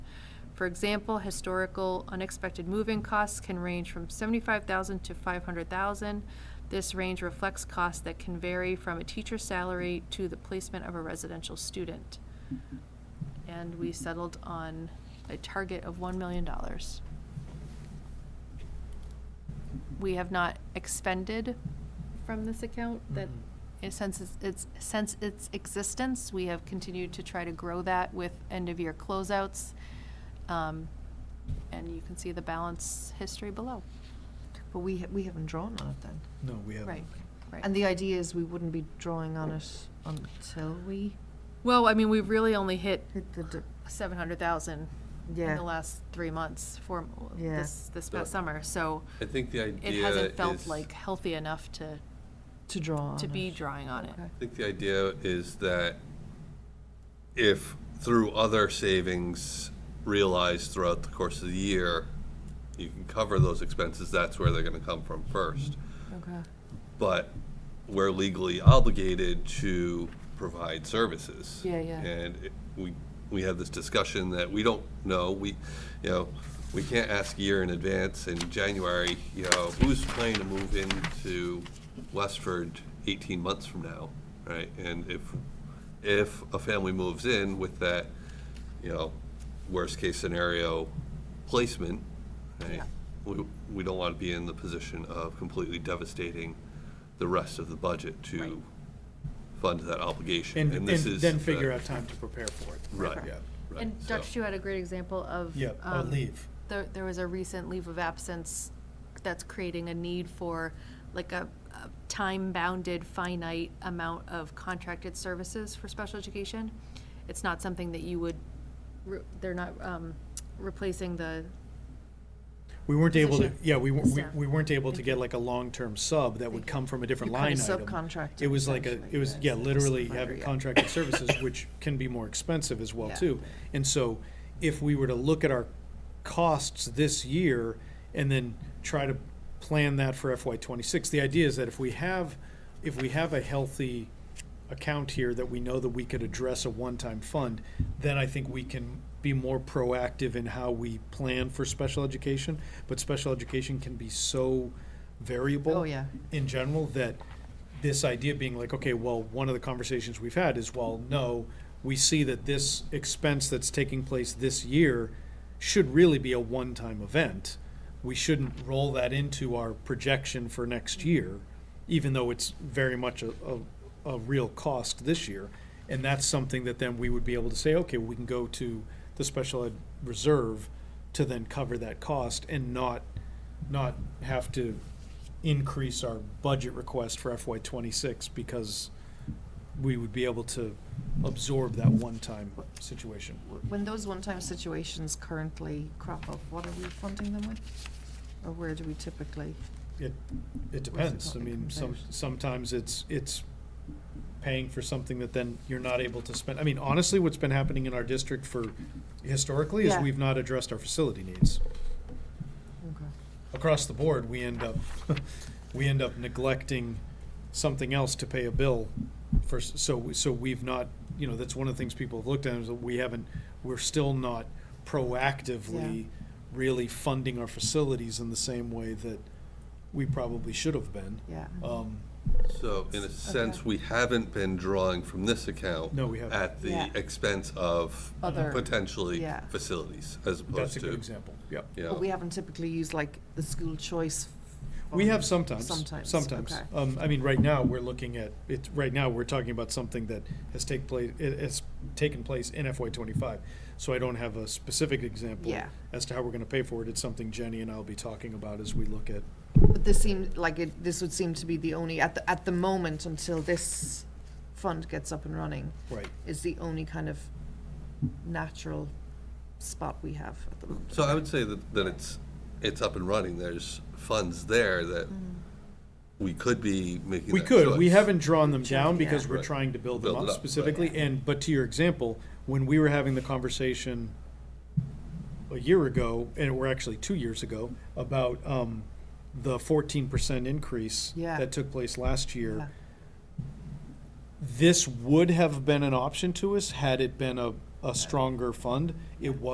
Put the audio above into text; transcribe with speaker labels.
Speaker 1: For example, historical unexpected move-in costs can range from seventy-five thousand to five hundred thousand. This range reflects costs that can vary from a teacher's salary to the placement of a residential student. And we settled on a target of one million dollars. We have not expended from this account that,
Speaker 2: Mhm.
Speaker 1: eh, since it's- it's, since its existence, we have continued to try to grow that with end-of-year closeouts. Um, And you can see the balance history below.
Speaker 3: But we, ha- we haven't drawn on it then.
Speaker 2: No, we haven't.
Speaker 1: Right, right.
Speaker 3: And the idea is we wouldn't be drawing on it until we
Speaker 1: Well, I mean, we've really only hit
Speaker 3: hit the, d-
Speaker 1: seven hundred thousand in
Speaker 3: Yeah.
Speaker 1: the last three months, four,
Speaker 3: Yeah.
Speaker 1: this, this
Speaker 4: But-
Speaker 1: past summer, so.
Speaker 4: I think the idea
Speaker 1: It hasn't felt
Speaker 4: is-
Speaker 1: like healthy enough to,
Speaker 3: to draw on
Speaker 1: to be
Speaker 3: it.
Speaker 1: drawing on it.
Speaker 3: Okay.
Speaker 4: I think the idea is that if through other savings realized throughout the course of the year, you can cover those expenses, that's where they're gonna come from first.
Speaker 3: Okay.
Speaker 4: But we're legally obligated to provide services.
Speaker 3: Yeah, yeah.
Speaker 4: And it- we, we had this discussion that we don't know, we, you know, we can't ask a year in advance in January, you know, who's planning to move into Westford eighteen months from now, right? And if, if a family moves in with that, you know, worst-case scenario placement, right?
Speaker 1: Yeah.
Speaker 4: We, we don't want to be in the position of completely devastating the rest of the budget
Speaker 1: Right.
Speaker 4: to fund that obligation.
Speaker 2: And, and
Speaker 4: this is
Speaker 2: then figure
Speaker 4: the-
Speaker 2: out time to prepare for it.
Speaker 4: Right.
Speaker 2: Yeah.
Speaker 4: right,
Speaker 1: And
Speaker 4: so-
Speaker 1: Dr. Chu had a great example of.
Speaker 2: Yeah, or
Speaker 1: um,
Speaker 2: leave.
Speaker 1: There, there was a recent leave of absence that's creating a need for like a, a time-bounded finite amount of contracted services for special education. It's not something that you would, re- they're not, um, replacing the,
Speaker 2: We weren't able to,
Speaker 1: Position.
Speaker 2: yeah, we, weren't- we
Speaker 1: Staff.
Speaker 2: we weren't able to get like a long-term sub that would come from a different
Speaker 3: You kind
Speaker 2: line
Speaker 3: of
Speaker 2: item.
Speaker 3: subcontract
Speaker 2: It
Speaker 3: it
Speaker 2: was like a,
Speaker 3: essentially,
Speaker 2: it was,
Speaker 3: yeah,
Speaker 2: yeah,
Speaker 3: it's a
Speaker 2: literally
Speaker 3: subcontractor,
Speaker 2: having
Speaker 3: yeah.
Speaker 2: contracted services, which can be more expensive as well
Speaker 3: Yeah.
Speaker 2: too. And so if we were to look at our costs this year and then try to plan that for FY twenty-six, the idea is that if we have, if we have a healthy account here that we know that we could address a one-time fund, then I think we can be more proactive in how we plan for special education. But special education can be so variable.
Speaker 3: Oh, yeah.
Speaker 2: In general, that this idea being like, okay, well, one of the conversations we've had is, well, no, we see that this expense that's taking place this year should really be a one-time event. We shouldn't roll that into our projection for next year, even though it's very much a, a, a real cost this year. And that's something that then we would be able to say, okay, we can go to the special ed reserve to then cover that cost and not, not have to increase our budget request for FY twenty-six because we would be able to absorb that one-time situation.
Speaker 3: W- When those one-time situations currently crop up, what are we funding them with? Or where do we typically?
Speaker 2: It, it depends. I mean, some, sometimes it's, it's paying for something that then you're not able to spend. I mean, honestly, what's been happening in our district for, historically, is
Speaker 3: Yeah.
Speaker 2: we've not addressed our facility needs.
Speaker 3: Okay.
Speaker 2: across the board, we end up, we end up neglecting something else to pay a bill for, s- so, so we've not, you know, that's one of the things people have looked at, is that we haven't, we're still not proactively
Speaker 3: Yeah.
Speaker 2: really funding our facilities in the same way that we probably should have been.
Speaker 3: Yeah.
Speaker 2: Um,
Speaker 4: So in a sense, we haven't been drawing from this account.
Speaker 2: No, we haven't.
Speaker 4: At the
Speaker 3: Yeah.
Speaker 4: expense of
Speaker 2: uh,
Speaker 3: Other-
Speaker 4: potentially
Speaker 3: Yeah.
Speaker 4: facilities as opposed
Speaker 2: That's
Speaker 4: to.
Speaker 2: a good example, yep.
Speaker 4: you know,
Speaker 3: But we haven't typically used like the school choice.
Speaker 2: We
Speaker 3: fund.
Speaker 2: have sometimes,
Speaker 3: Um, Sometimes,
Speaker 2: sometimes.
Speaker 3: okay.
Speaker 2: Um, I mean, right now, we're looking at, it, right now, we're talking about something that has take place, it has taken place in FY twenty-five. So I don't have a specific example
Speaker 3: Yeah.
Speaker 2: as to how we're gonna pay for it. It's something Jenny and I'll be talking about as we look at,
Speaker 3: But this seemed like it, this would seem to be the only, at the, at the moment, until this fund gets up and running,
Speaker 2: right.
Speaker 3: is the only kind of natural spot we have at the moment.
Speaker 4: So I would say that, that it's, it's up and running. There's funds there that
Speaker 3: Mm-hmm.
Speaker 4: we could be making
Speaker 2: We
Speaker 4: that
Speaker 2: could, we
Speaker 4: choice.
Speaker 2: haven't drawn them
Speaker 3: Yeah.
Speaker 2: down because we're
Speaker 4: Right.
Speaker 2: trying to build them
Speaker 4: Build it
Speaker 2: up
Speaker 4: up, right.
Speaker 2: specifically. And, but to your example, when we were having the conversation a year ago, and we're actually two years ago, about, um, the fourteen percent increase
Speaker 3: Yeah.
Speaker 2: that took place last year.
Speaker 3: Yeah.
Speaker 2: this would have been an option to us had it been a, a stronger fund. It was.